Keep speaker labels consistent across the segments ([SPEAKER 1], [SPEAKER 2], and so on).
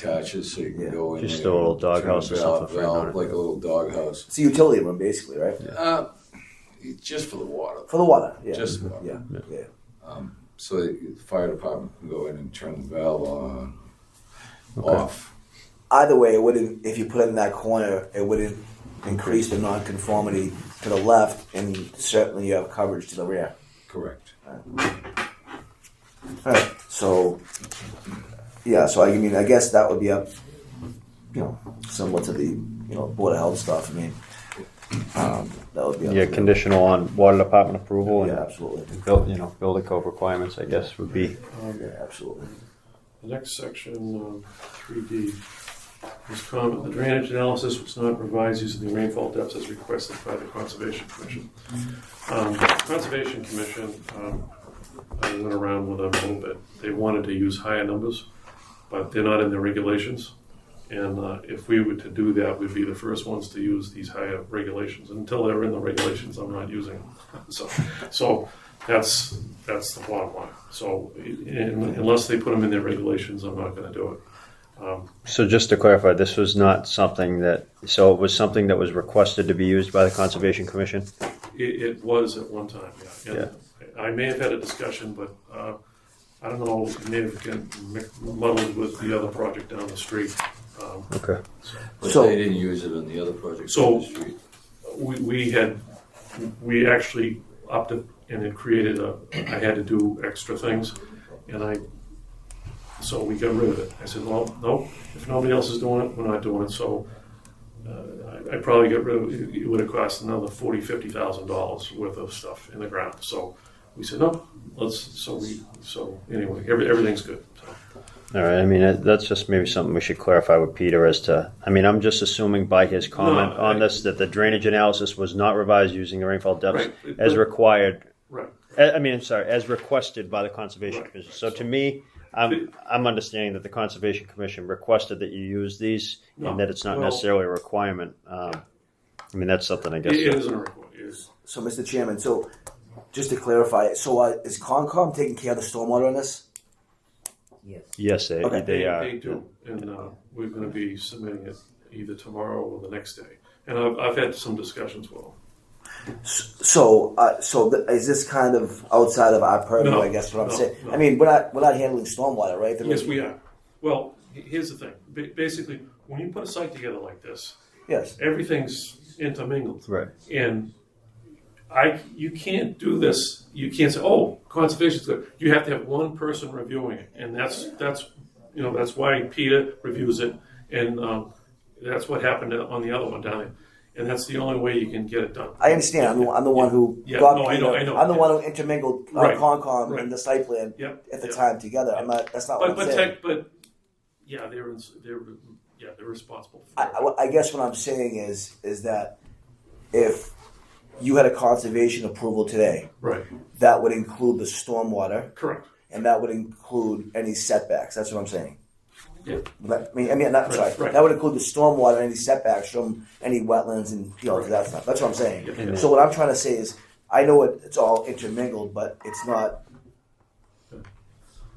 [SPEAKER 1] attaches so you can
[SPEAKER 2] Yeah,
[SPEAKER 1] go in
[SPEAKER 3] just
[SPEAKER 1] there
[SPEAKER 3] a little
[SPEAKER 1] and turn
[SPEAKER 3] doghouse
[SPEAKER 1] the
[SPEAKER 3] or something
[SPEAKER 1] valve-
[SPEAKER 3] for a
[SPEAKER 1] valve,
[SPEAKER 3] hundred.
[SPEAKER 1] like a little doghouse.
[SPEAKER 2] It's a utility room, basically, right?
[SPEAKER 1] Uh, it's just for the water.
[SPEAKER 2] For the water. Yeah. Mm-hmm.
[SPEAKER 1] Just the water.
[SPEAKER 2] yeah. Yeah.
[SPEAKER 1] so the fire department can go in and turn the valve on, off.
[SPEAKER 2] Either way, it wouldn't. If you put it in that corner, it wouldn't increase the nonconformity to the left, and certainly you have coverage to the rear.
[SPEAKER 1] Correct.
[SPEAKER 2] Alright, so, yeah, so I mean, I guess that would be up, you know, somewhat to the, you know, Board of Health stuff, I mean, um, that would be up to
[SPEAKER 3] Yeah,
[SPEAKER 2] them.
[SPEAKER 3] conditional on water department approval
[SPEAKER 2] Yeah,
[SPEAKER 3] and
[SPEAKER 2] absolutely,
[SPEAKER 3] build, you know, building code requirements, I guess, would be.
[SPEAKER 2] yeah, absolutely.
[SPEAKER 4] Um, The next section, three D, is comment, the drainage analysis was not revised using the rainfall depths as requested by the Conservation Commission. Um, Conservation Commission, um, I went around with them a little bit, they wanted to use higher numbers, but they're not in their regulations. And uh, if we were to do that, we'd be the first ones to use these higher regulations. Until they're in the regulations, I'm not using them. So, so that's, that's the bottom line. So in- unless they put them in their regulations, I'm not gonna do it. Um,
[SPEAKER 3] So just to clarify, this was not something that, so it was something that was requested to be used by the Conservation Commission?
[SPEAKER 4] It, it was at one time, yeah. And I may have had a discussion, but uh, I don't know, it may have gotten muddled with the other project down the street. Um,
[SPEAKER 3] Okay.
[SPEAKER 1] But
[SPEAKER 2] So-
[SPEAKER 1] they didn't use it on the other project.
[SPEAKER 4] So-
[SPEAKER 1] on the street.
[SPEAKER 4] we, we had, we actually opted and it created a, I had to do extra things. And I, so we got rid of it. I said, well, no, if nobody else is doing it, we're not doing it. So uh, I, I probably got rid of, it It would have cost another forty, fifty thousand dollars worth of stuff in the ground. So we said, no, let's, so we, so anyway, every, everything's good. So
[SPEAKER 3] All right, I mean, that- that's just maybe something we should clarify with Peter as to, I mean, I'm just assuming by his comment
[SPEAKER 4] No,
[SPEAKER 3] on
[SPEAKER 4] I-
[SPEAKER 3] this that the drainage analysis was not revised using the rainfall depths
[SPEAKER 4] Right,
[SPEAKER 3] as
[SPEAKER 4] but-
[SPEAKER 3] required,
[SPEAKER 4] Right.
[SPEAKER 3] I I mean, I'm sorry, as requested by the Conservation
[SPEAKER 4] Right,
[SPEAKER 3] Commission.
[SPEAKER 4] right.
[SPEAKER 3] So to me, I'm, I'm understanding that the Conservation Commission requested that you use these
[SPEAKER 4] No,
[SPEAKER 3] and that it's not
[SPEAKER 4] well-
[SPEAKER 3] necessarily a requirement. Um, I mean, that's something I
[SPEAKER 4] It
[SPEAKER 3] guess.
[SPEAKER 4] it
[SPEAKER 3] that-
[SPEAKER 4] isn't a requirement. It is-
[SPEAKER 2] So, Mr. Chairman, so, just to clarify, so uh, is Concom taking care of the stormwater on this?
[SPEAKER 5] Yes.
[SPEAKER 3] Yes, they,
[SPEAKER 2] Okay.
[SPEAKER 3] they are.
[SPEAKER 4] They do, and uh, we're going to be submitting it either tomorrow or the next day. And I've, I've had some discussions with them.
[SPEAKER 2] So, uh, so th- is this kind of outside of our purview,
[SPEAKER 4] No,
[SPEAKER 2] I guess what I'm
[SPEAKER 4] no,
[SPEAKER 2] saying?
[SPEAKER 4] no.
[SPEAKER 2] I mean, we're not, we're not handling stormwater, right? There
[SPEAKER 4] Yes,
[SPEAKER 2] is-
[SPEAKER 4] we are. Well, he- here's the thing. Ba- Basically, when you put a site together like this,
[SPEAKER 2] Yes,
[SPEAKER 4] everything's intermingled.
[SPEAKER 3] Right.
[SPEAKER 4] And I, you can't do this. You can't say, "Oh, conservation's good." You have to have one person reviewing it, and that's that's you know that's why Peter reviews it, and um, that's what happened on the other one down there. And that's the only way you can get it done.
[SPEAKER 2] I understand, I'm the, I'm the one who.
[SPEAKER 4] Yeah,
[SPEAKER 2] got-
[SPEAKER 4] no, I know, I know.
[SPEAKER 2] I'm the one who intermingled uh,
[SPEAKER 4] Right,
[SPEAKER 2] Concom
[SPEAKER 4] right.
[SPEAKER 2] and the site plan
[SPEAKER 4] Yep.
[SPEAKER 2] at the
[SPEAKER 4] yep.
[SPEAKER 2] time together. I'm not. That's not
[SPEAKER 4] But
[SPEAKER 2] what I'm
[SPEAKER 4] but
[SPEAKER 2] saying.
[SPEAKER 4] tech, but yeah, they're ins- they're yeah they're responsible. For
[SPEAKER 2] I,
[SPEAKER 4] it.
[SPEAKER 2] I- what- I guess what I'm saying is is that if you had a conservation approval today,
[SPEAKER 4] right.
[SPEAKER 2] that would include the stormwater
[SPEAKER 4] Correct.
[SPEAKER 2] and that would include any setbacks. That's what I'm saying.
[SPEAKER 4] Yeah.
[SPEAKER 2] I mean, I mean, not,
[SPEAKER 4] Right,
[SPEAKER 2] sorry.
[SPEAKER 4] right.
[SPEAKER 2] That would include the stormwater and any setbacks from any wetlands and you know
[SPEAKER 4] Right.
[SPEAKER 2] that stuff. That's what I'm saying.
[SPEAKER 4] Yeah.
[SPEAKER 2] So what I'm trying to say is, I know it, it's all intermingled, but it's not.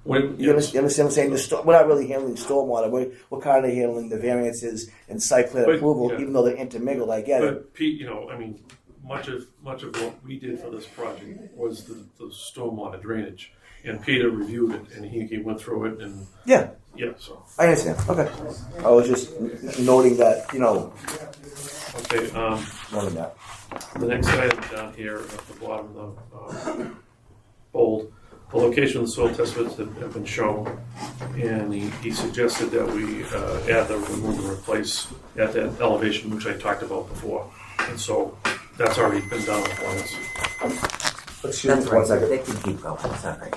[SPEAKER 4] When,
[SPEAKER 2] You, understand, you understand what I'm saying? The sto- we're not really handling stormwater. We're, we're kind of handling the variances and site plan
[SPEAKER 4] But,
[SPEAKER 2] approval,
[SPEAKER 4] yeah.
[SPEAKER 2] even though they're intermingled. I get it.
[SPEAKER 4] But Pete, you know, I mean, much of, much of what we did for this project was the, the stormwater drainage. And Peter reviewed it and he, he went through it and,
[SPEAKER 2] Yeah,
[SPEAKER 4] yeah, so,
[SPEAKER 2] I understand. Okay. I was just n- noting that, you know,
[SPEAKER 4] okay, um,
[SPEAKER 2] noting that.
[SPEAKER 4] the next item down here at the bottom of, the, um, bold, the location of the soil test pits have, have been shown. And he, he suggested that we, uh, add the remove and replace at that elevation, which I talked about before. And so that's already been done once.
[SPEAKER 2] Excuse me
[SPEAKER 5] That's
[SPEAKER 2] for one
[SPEAKER 5] right,
[SPEAKER 2] second.
[SPEAKER 5] they can keep going, it's all right.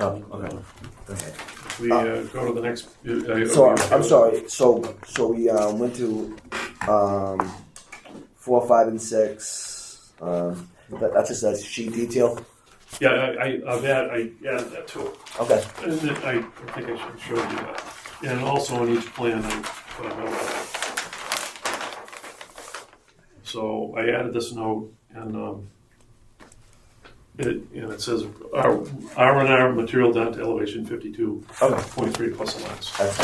[SPEAKER 2] Oh, okay. Go ahead.
[SPEAKER 4] We uh, go to the next. uh, uh,
[SPEAKER 2] So
[SPEAKER 4] we-
[SPEAKER 2] I'm sorry. So so we um, went to um, four, five, and six. Um, that, that's just a sheet detail.
[SPEAKER 4] Yeah, I, I, I've added, I added that to it.
[SPEAKER 2] Okay.
[SPEAKER 4] And then I, I think I should show you that. And also on each plan, I put a note. So I added this note and, um, it, and it uh, says R, R and R material down to elevation fifty-two
[SPEAKER 2] Okay.
[SPEAKER 4] point three plus or minus.
[SPEAKER 2] That's